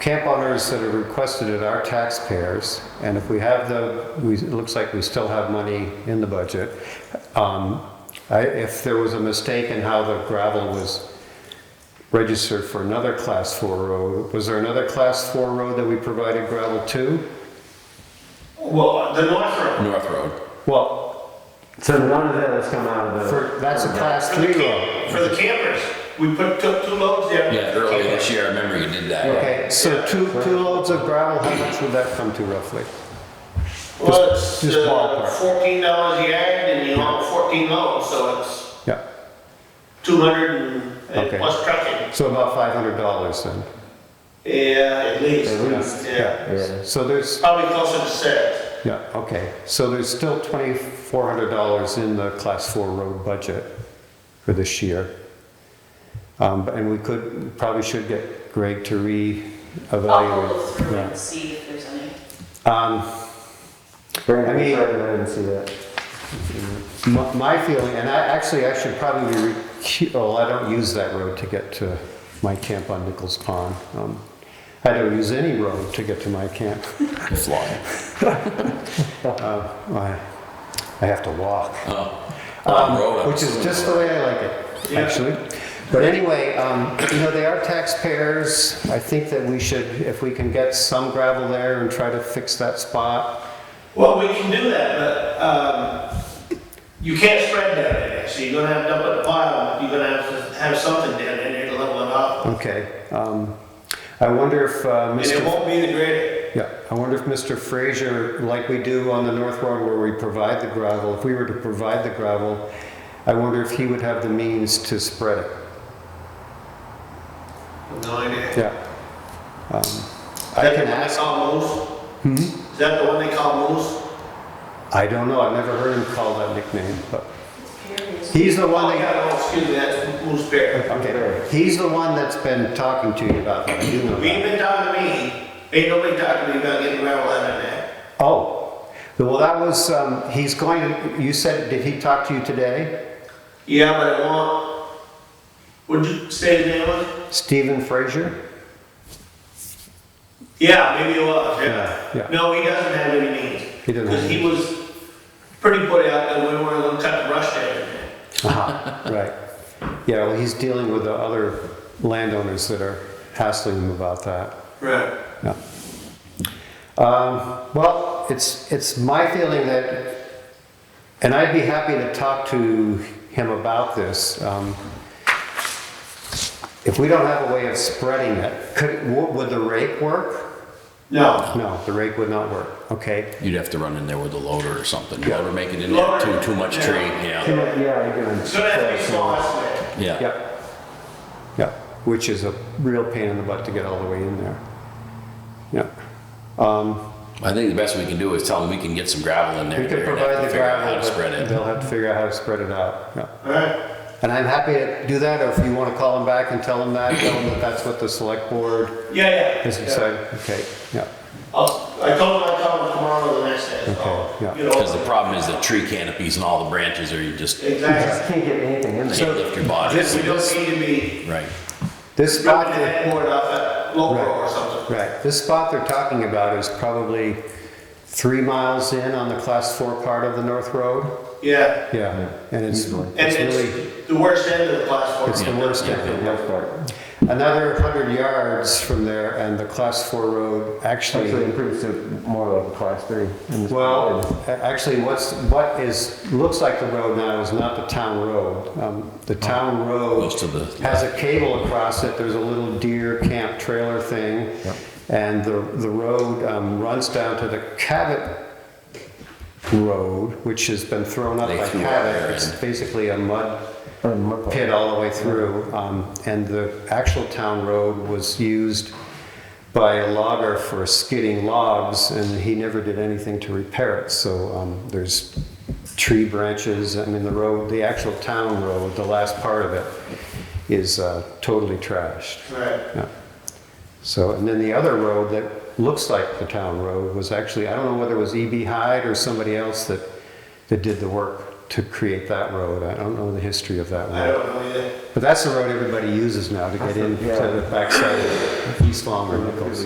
camp owners that have requested it are taxpayers, and if we have the, we, it looks like we still have money in the budget. Um, I, if there was a mistake in how the gravel was registered for another class four road, was there another class four road that we provided gravel to? Well, the North Road. North Road. Well, So none of that has come out of the, for, that's a class For the three road. camp, for the campers, we put, took two loads there. Yeah, earlier this year, I remember you did that. Okay, so two, two loads of gravel, how much would that come to roughly? Well, it's just uh, ballpark. fourteen dollars a yard and you haul fourteen loads, so it's Yeah, two hundred and Okay. plus trucking. so about five hundred dollars then. Yeah, at least. At least, Yeah. yeah. So there's, Probably closer to six. yeah, okay, so there's still twenty-four hundred dollars in the class four road budget for this year. Um, but- and we could, probably should get Greg to I'll go re-evaluate. through and Yeah. see if there's any. Um, I Brandon, mean- sorry that I didn't see that. My my feeling, and I, actually, I should probably, recu- well, I don't use that road to get to my camp on Nichols Pond. Um, I don't use any road to get to my camp. Fly. Uh, I I have to walk. Oh. Um, road up. Which is just the way I like it, Yeah. actually. But anyway, um, you know, they are taxpayers. I think that we should, if we can get some gravel there and try to fix that spot. Well, we can do that, but, um, you can't spread down there, so you're gonna have to dump at the bottom, you're gonna have to have something down there to level it off. Okay. um, I wonder if uh, Mr. And it won't be the greater, Yeah, I wonder if Mr. Frazier, like we do on the North Road where we provide the gravel, if we were to provide the gravel, I wonder if he would have the means to spread it. no idea. Yeah. Um, I Is that can the one they ask, call moose? Hmm? Is that the one they call moose? I don't know, I've never heard him call that nickname, but Curious. he's the Oh, one that, yeah, oh, excuse me, that's moose bear. okay, he's the one that's been talking to you about that, you know We that. ain't been talking to me, ain't nobody talking to me about getting gravel out of there. Oh, well, that was, um, he's going, to. you said, did he talk to you today? Yeah, but I want, would you say his name was? Stephen Frazier? Yeah, maybe it was, yeah. Yeah, yeah. No, he doesn't have any means. He doesn't have Because he was pretty put out that we weren't gonna cut the brush down there. Aha, Ah, right. Yeah, well, he's dealing with the other landowners that are hassling him about that. Right. Yeah. Um, Well, it's, it's my feeling that, and I'd be happy to talk to him about this. um, If we don't have a way of spreading it, could, w- would the rake work? No. No, the rake would not work, okay. You'd have to run in there with a loader or something. Loader make it in there, Loader. too, too much Yeah. tree, yeah. Yeah, yeah, you're gonna. It's gonna have to be small estimate. Yeah. Yep. Yep, which is a real pain in the butt to get all the way in there. Yep. Um, I think the best we can do is tell them we can get some gravel in there. We could and they'd have provide to the figure out gravel, How to spread but it. they'll have to figure out how to spread it out. Yeah. Alright, And I'm happy to do that, or if you want to call them back and tell them that, tell them that that's what the select board yeah, yeah. has yeah. decided. Okay, yeah, I'll, Oh, I told him I'd call him tomorrow or the next day, so. Okay, yeah. you know. Because the problem is the tree canopies and all the branches are, you just can't You Exactly. just can't get anything in there. lift your body. This, we don't need to be Right. this spot, dropping the that- headboard off at Lowbro or Right. something. right, this spot they're talking about is probably three miles in on the class four part of the North Road. Yeah. Yeah, and it's, And it's really, it's the worst end of the class four. it's the Yeah. worst Yeah. ever. That's part. Another hundred yards from there and the class four road actually. Actually improves to more like a class three. in this Well, part. a- actually, what's, what is, looks like the road now is not the town road. Um, The town road Goes Oh. to the- has a cable across it, there's a little deer camp trailer thing. And the, the road um, runs down to the Cabot Road, which has been thrown up They by threw it there, Cabot. It's and- basically a mud Or muck- pit all the way through, um, and the actual town road was used by a logger for skidding logs, and he never did anything to repair it, so, um, there's tree branches, I mean, the road, the actual town road, the last part of it is, uh, totally trashed. Right. Yeah. So, and then the other road that looks like the town road was actually, I don't know whether it was E.B. Hyde or somebody else that, that did the work to create that road. I don't know the history of that I road. don't know either. But that's the road everybody uses now to get into the backside of East Long or Nichols.